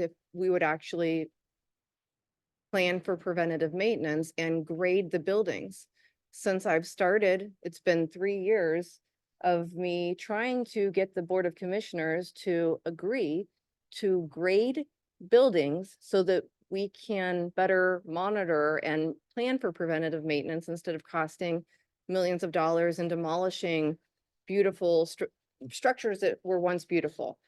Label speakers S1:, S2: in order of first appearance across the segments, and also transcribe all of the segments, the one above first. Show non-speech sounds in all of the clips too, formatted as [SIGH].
S1: if we would actually plan for preventative maintenance and grade the buildings. Since I've started, it's been three years of me trying to get the Board of Commissioners to agree to grade buildings so that we can better monitor and plan for preventative maintenance instead of costing millions of dollars and demolishing beautiful stru- structures that were once beautiful.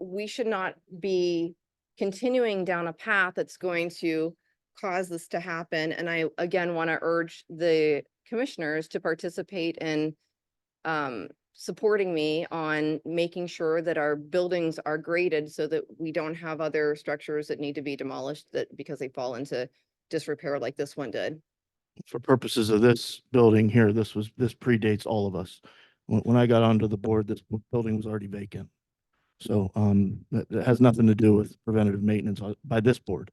S1: We should not be continuing down a path that's going to cause this to happen. And I again want to urge the commissioners to participate in um, supporting me on making sure that our buildings are graded so that we don't have other structures that need to be demolished that because they fall into disrepair like this one did.
S2: for purposes of this building here, this was, this predates all of us. When, when I got onto the board, this bu- building was already vacant. So, um, that, that has nothing to do with preventative maintenance on- by this board.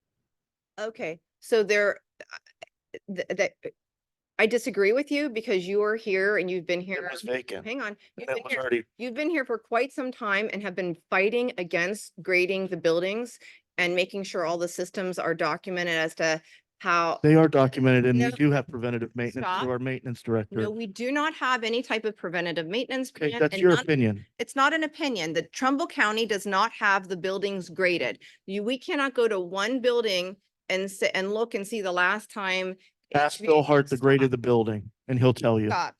S1: Okay, so there, uh, th- that, I disagree with you because you are here and you've been
S2: It
S1: here.
S2: was vacant.
S1: Hang on. you've
S2: It
S1: been
S2: was
S1: here-
S2: already,
S1: You've been here for quite some time and have been fighting against grading the buildings and making sure all the systems are documented as to how.
S2: they are documented and
S1: No.
S2: we do have preventative maintenance
S1: Stop.
S2: through our maintenance director.
S1: No, we do not have any type of preventative maintenance.
S2: Okay,
S1: plan
S2: that's
S1: and
S2: your
S1: none-
S2: opinion.
S1: It's not an opinion. The Trumbull County does not have the buildings graded. You, we cannot go to one building and sit and look and see the last time.
S2: Ask
S1: HVAC
S2: Bill Hart the grade
S1: stop.
S2: of the building and he'll tell you.
S1: Stop.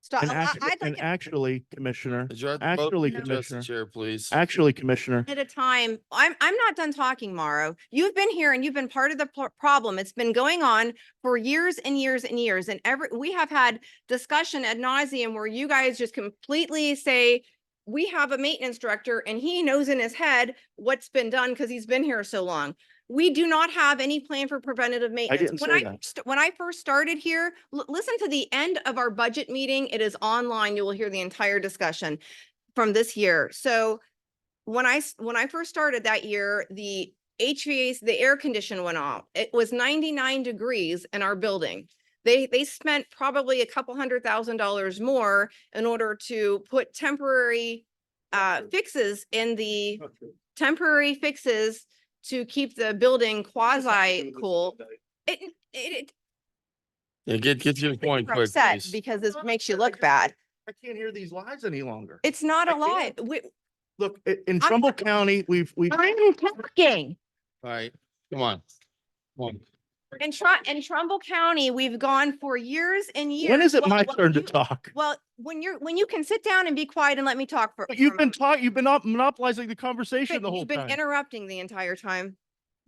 S1: Stop.
S2: And
S1: I-
S2: act-
S1: I'd like
S2: and
S1: it
S2: actually, Commissioner,
S3: Adjourn the vote,
S2: actually,
S3: adjust the
S2: Commissioner,
S3: Chair, please.
S2: actually, Commissioner,
S1: At a time, I'm, I'm not done talking, Mauro. You've been here and you've been part of the pro- problem. It's been going on for years and years and years. And every, we have had discussion ad nauseum where you guys just completely say, we have a maintenance director and he knows in his head what's been done because he's been here so long. We do not have any plan for preventative maintenance.
S2: didn't
S1: When
S2: say that.
S1: first- When I first started here, l- listen to the end of our budget meeting. It is online. You will hear the entire discussion from this year. So when I, s- when I first started that year, the HVAC, the air condition went off. It was 99 degrees in our building. They, they spent probably a couple hundred thousand dollars more in order to put temporary uh, fixes in the, temporary fixes to keep the building quasi cool. It, it- it,
S3: Yeah, get, get to the point
S1: you're
S3: quick,
S1: upset
S3: please.
S1: because this
S2: Not
S1: makes you
S2: upset, I
S1: look
S2: just-
S1: bad.
S2: I can't hear these lies any longer.
S1: It's not a
S2: I
S1: lie.
S2: can't.
S1: We,
S2: Look, i-
S1: I'm-
S2: in Trumbull County, we've, we've,
S1: I'm talking.
S3: All right, come on. Come on.
S1: In Trum, in Trumbull County, we've gone for years and years.
S2: when is it
S1: Well,
S2: my
S1: well,
S2: turn to
S1: you-
S2: talk?
S1: Well, when you're, when you can sit down and be quiet and let me talk for.
S2: But
S1: for a
S2: You've been
S1: moment.
S2: talking, you've been op- monopolizing the conversation
S1: But
S2: the whole
S1: You've been
S2: time. Oh
S1: interrupting the entire time.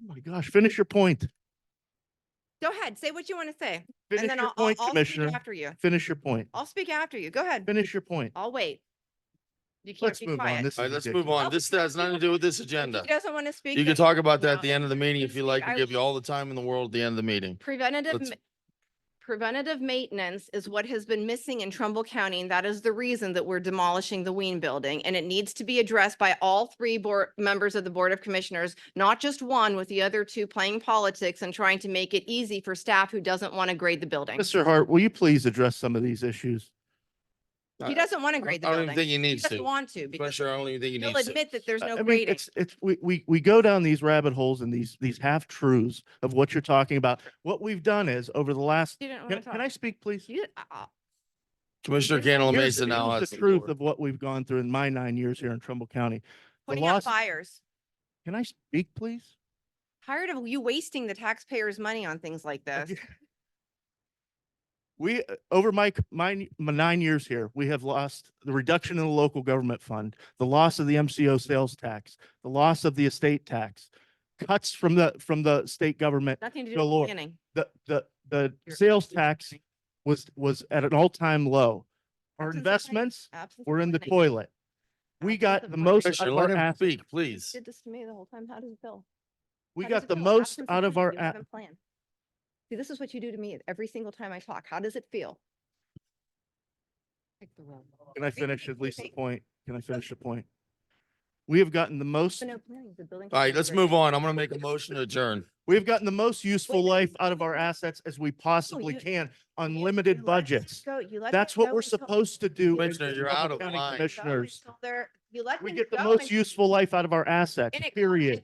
S2: my gosh, finish your point.
S1: Go ahead, say what you want to say. And
S2: Finish
S1: then
S2: your
S1: I'll, I'll
S2: point,
S1: I'll speak
S2: Commissioner.
S1: after you.
S2: Finish your point.
S1: I'll speak after you. Go ahead.
S2: Finish your point.
S1: I'll wait. You can't
S2: Let's
S1: be
S2: move on.
S1: quiet.
S2: This
S3: All
S2: is
S3: right, let's move
S2: ridiculous.
S3: on. This has nothing to do with this agenda.
S1: He Oh, doesn't want to speak.
S3: You can
S1: then
S3: talk about that
S1: No.
S3: at the end of the meeting if you like.
S1: I
S3: We'll give you
S1: will.
S3: all the time in the world at the end of the meeting.
S1: Preventative,
S3: Let's-
S1: ma- preventative maintenance is what has been missing in Trumbull County, and that is the reason that we're demolishing the Ween Building. And it needs to be addressed by all three board, members of the Board of Commissioners, not just one with the other two playing politics and trying to make it easy for staff who doesn't want to grade the building.
S2: Mr. Hart, will you please address some of these issues?
S1: He doesn't want to grade the
S3: I don't even
S1: building.
S3: think he
S1: He
S3: needs
S1: doesn't
S3: to.
S1: want to because
S3: Commissioner, I don't even think he
S1: he'll
S3: needs to.
S1: admit that there's
S2: I- I
S1: no
S2: mean,
S1: grading.
S2: It's, it's, we, we, we go down these rabbit holes and these, these half truths of what you're talking about. What we've done is over the last,
S1: You didn't want
S2: can
S1: to talk.
S2: can I speak, please?
S1: You didn't- I- I-
S3: Commissioner Cantala
S2: Here's
S3: Mesa
S2: the-
S3: now
S2: here's
S3: has.
S2: The truth of what we've gone through in my nine years here in Trumbull County. The
S1: Putting out
S2: loss-
S1: fires.
S2: Can I speak, please?
S1: Tired of you wasting the taxpayers' money on things like this.
S2: We, uh, over my, c- my, n- my nine years here, we have lost the reduction in the local government fund, the loss of the MCO sales tax, the loss of the estate tax, cuts from the, from the state government,
S1: [LAUGHS] Nothing to do
S2: Good
S1: with
S2: Lord.
S1: planning.
S2: the, the, the
S1: Your
S2: sales
S1: absentee
S2: tax was, was at an all-time low. Our
S1: Absentee tax,
S2: investments
S1: absence
S2: were in the
S1: planning.
S2: toilet. We
S1: Absence
S2: got
S1: of
S2: the
S1: planning.
S2: most out
S3: Commissioner,
S2: of
S3: let
S2: our
S3: him
S2: assets.
S3: speak, please.
S1: Did this to me the whole time. How does it feel?
S2: We
S1: How does
S2: got
S1: it
S2: the
S1: feel?
S2: most
S1: Absence of
S2: out of
S1: planning.
S2: our,
S1: You
S2: a-
S1: haven't planned. See, this is what you do to me every single time I talk. How does it feel?
S2: can I finish at least the point? Can I finish the point? We have gotten the most
S1: No planning, the building.
S3: All right, let's move on. I'm gonna make a motion to adjourn.
S2: We've gotten the most useful
S1: Wait,
S2: life out of our assets as we possibly
S1: Oh, you-
S2: can on limited budgets. That's what we're supposed to do. as
S3: Commissioner, you're
S2: Trumbull
S3: out of
S2: County
S3: line.
S2: Commissioners,
S1: You let
S2: we
S1: them
S2: get the
S1: go
S2: most
S1: and-
S2: useful life out of our assets,
S1: And it-
S2: period.